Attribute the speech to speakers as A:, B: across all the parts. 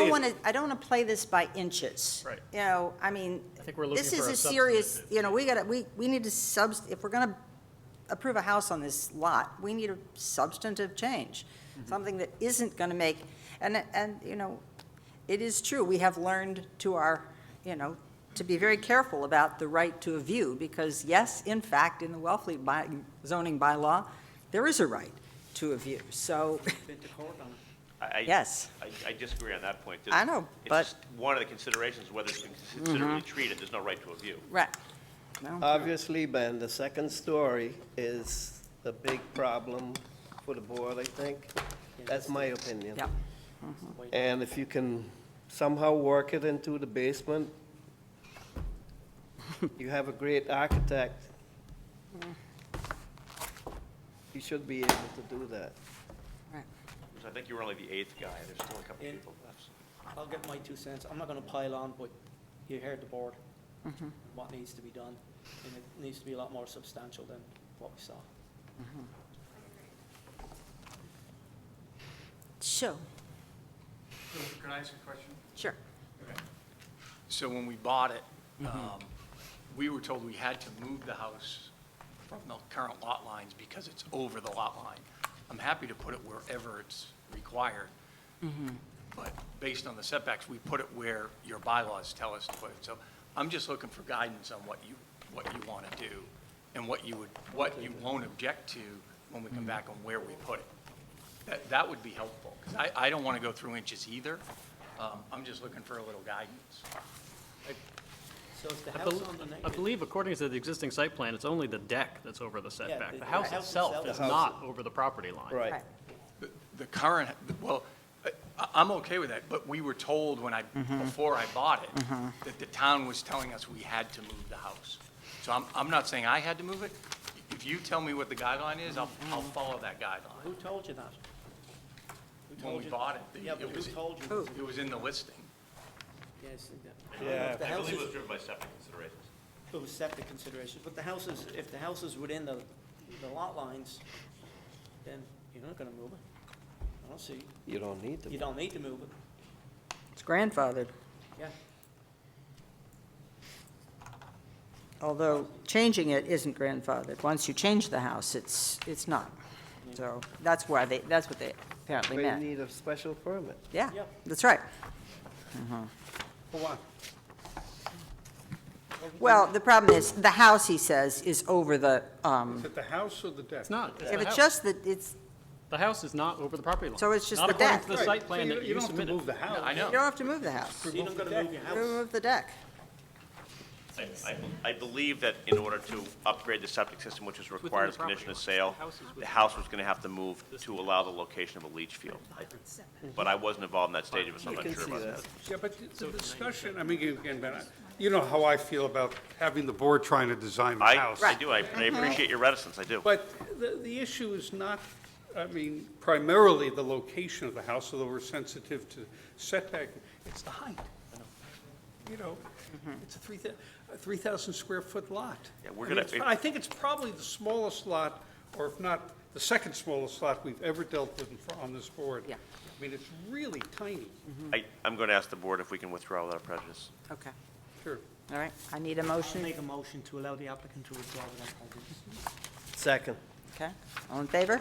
A: I don't want to, I don't want to play this by inches.
B: Right.
A: You know, I mean,
B: I think we're looking
A: this is
B: for
A: a
B: a
A: serious,
B: substantive.
A: you know, we gotta, we, we need to subs, if we're gonna approve a house on this lot, we need a substantive change.
B: Mm-hmm.
A: Something that isn't gonna make, and, and, you know, it is true, we have learned to our, you know, to be very careful about the right to a view, because yes, in fact, in the Wellfleet by, zoning bylaw, there is a right to a view, so,
C: I- I-
A: yes.
C: I- I disagree on that point.
A: I know,
C: It's
A: but-
C: just one of the considerations, whether it's been considerably treated, there's no right to a view.
A: Right. Well,
D: Uh, Obviously, Ben, the second story is a big problem for the board, I think. That's my opinion.
A: Yeah.
D: And if you can somehow work it into the basement, you have a great architect. You should be able to do that.
A: right.
C: Because I think you were only the eighth guy, there's still a couple
B: Yeah.
C: people left.
B: I'll get my two cents. I'm not gonna pile on, but you heard the board, what needs to be done, and it needs to be a lot more substantial than what we saw.
A: So,
E: Can I ask a question?
A: sure.
E: So when we bought it, um, we were told we had to move the house from the current lot lines because it's over the lot line. I'm happy to put it wherever it's required, but based on the setbacks, we put it where your bylaws tell us to put it. So I'm just looking for guidance on what you, what you want to do and what you would, what you won't object to when we come back on where we put it. That, that would be helpful, because I, I don't want to go through inches either. Um, I'm just looking for a little guidance.
B: So is the
F: I
B: house
F: bel-
B: on the next?
F: I believe according to the existing site plan, it's only the deck that's over the setback.
B: the-
F: The house
B: the house
F: itself
B: itself
F: is
D: is-
F: not over the property line.
D: Right.
E: The- The current, well, I- I'm okay with that, but we were told when I, before I bought it, that the town was telling us we had to move the house. So I'm, I'm not saying I had to move it. If you tell me what the guideline is, I'll, I'll follow that guideline.
B: Who told you that? Who
E: When
B: told
E: we
B: you-
E: bought it, the-
B: Yeah, but
E: it
B: who
E: was,
B: told you?
A: Who?
E: it was in the listing.
B: Yes, yeah.
D: Yeah.
B: The
C: I
B: house
C: believe it
B: is,
C: was driven by separate considerations.
B: it was septic considerations, but the house is, if the house is within the, the lot lines, then you're not gonna move it. I don't see,
D: You don't need to.
B: you don't need to move it,
A: It's grandfathered,
B: yeah.
A: although changing it isn't grandfathered. Once you change the house, it's, it's not. So that's why they, that's what they apparently
D: But you
A: meant.
D: need a special permit.
A: Yeah,
B: Yep.
A: that's right.
B: For what?
A: Uh-huh. Well, the problem is, the house, he says, is over the, um,
G: Is it the house or the deck?
F: It's not. It's
A: if it's
F: the house.
A: just that, it's,
F: The house is not over the property line.
A: So it's just the deck.
F: Not according to the site plan that you
G: don't have to
F: submitted.
G: move the house.
E: I
A: you
E: know.
A: don't have to move the house.
B: So you're not gonna move your house?
A: Remove the deck.
C: I- I bel- I believe that in order to upgrade the septic system, which was required as
F: the
C: a
F: property
C: condition of
F: line.
C: sale,
F: The house is
C: the house was going to have to move to allow the location of a leach field. I- But I wasn't involved in that stage of it, so I'm
D: You
C: not
D: can
C: sure
D: see
C: about
D: that.
C: that.
G: Yeah, but the discussion, I mean, again, Ben, I- you know how I feel about having the board trying to design the
C: I,
G: house.
C: I do, I I appreciate your reticence, I do.
G: But the, the issue is not, I mean, primarily the location of the house, although we're sensitive to setback, it's the height. You know, it's a three, thou- a 3,000 square foot lot.
C: Mm-hmm. Yeah, we're
G: I mean,
C: gonna-
G: it's pro- I think it's probably the smallest lot, or if not, the second smallest lot we've ever dealt with in fr- on this board.
A: Yeah.
G: I mean, it's really tiny.
C: I, I'm going to ask the board if we can withdraw without prejudice.
A: Okay,
G: Sure.
A: all right, I need a
B: I'll
A: motion,
B: make a motion to allow the applicant to withdraw without prejudice.
D: Second.
A: okay? All in favor?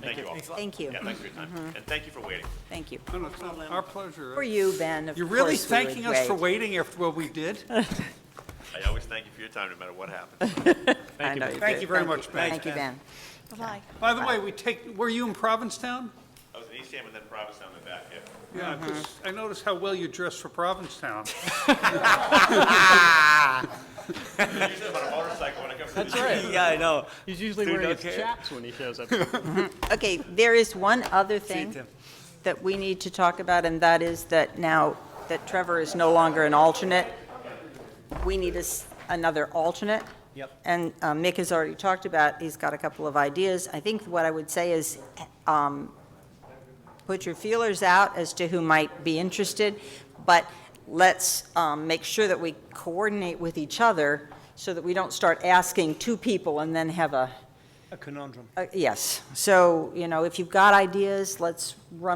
C: Thank you all.
A: Thank you,
C: Yeah, thanks for your time, and thank you for waiting.
A: thank you.
G: No, no, it's not- our pleasure.
A: For you, Ben, of
G: You're really
A: course we would
G: thanking us for
A: wait.
G: waiting after what we did?
C: I always thank you for your time, no matter what happens.
A: I know you
G: Thank
A: do.
G: you very much, Ben.
A: Thank you, Ben.
G: By the way, we take, were you in Provincetown? Uh-huh.
C: I was in Eastham and then Provincetown and back, yeah.
G: Yeah, 'cause I noticed how well you dressed for Provincetown.
C: Usually I'm on a motorcycle when I come to the
F: That's right.
B: Yeah, I know.
F: He's usually wearing his chaps when he shows up.
A: Okay, there is one other thing
G: Tim.
A: that we need to talk about, and that is that now that Trevor is no longer an alternate, we need a s- another alternate.
B: Yep.
A: And um, Mick has already talked about, he's got a couple of ideas. I think what I would say is, um, put your feelers out as to who might be interested, but let's um, make sure that we coordinate with each other so that we don't start asking two people and then have a
B: a conundrum.
A: Uh, Yes, so, you know, if you've got ideas, let's run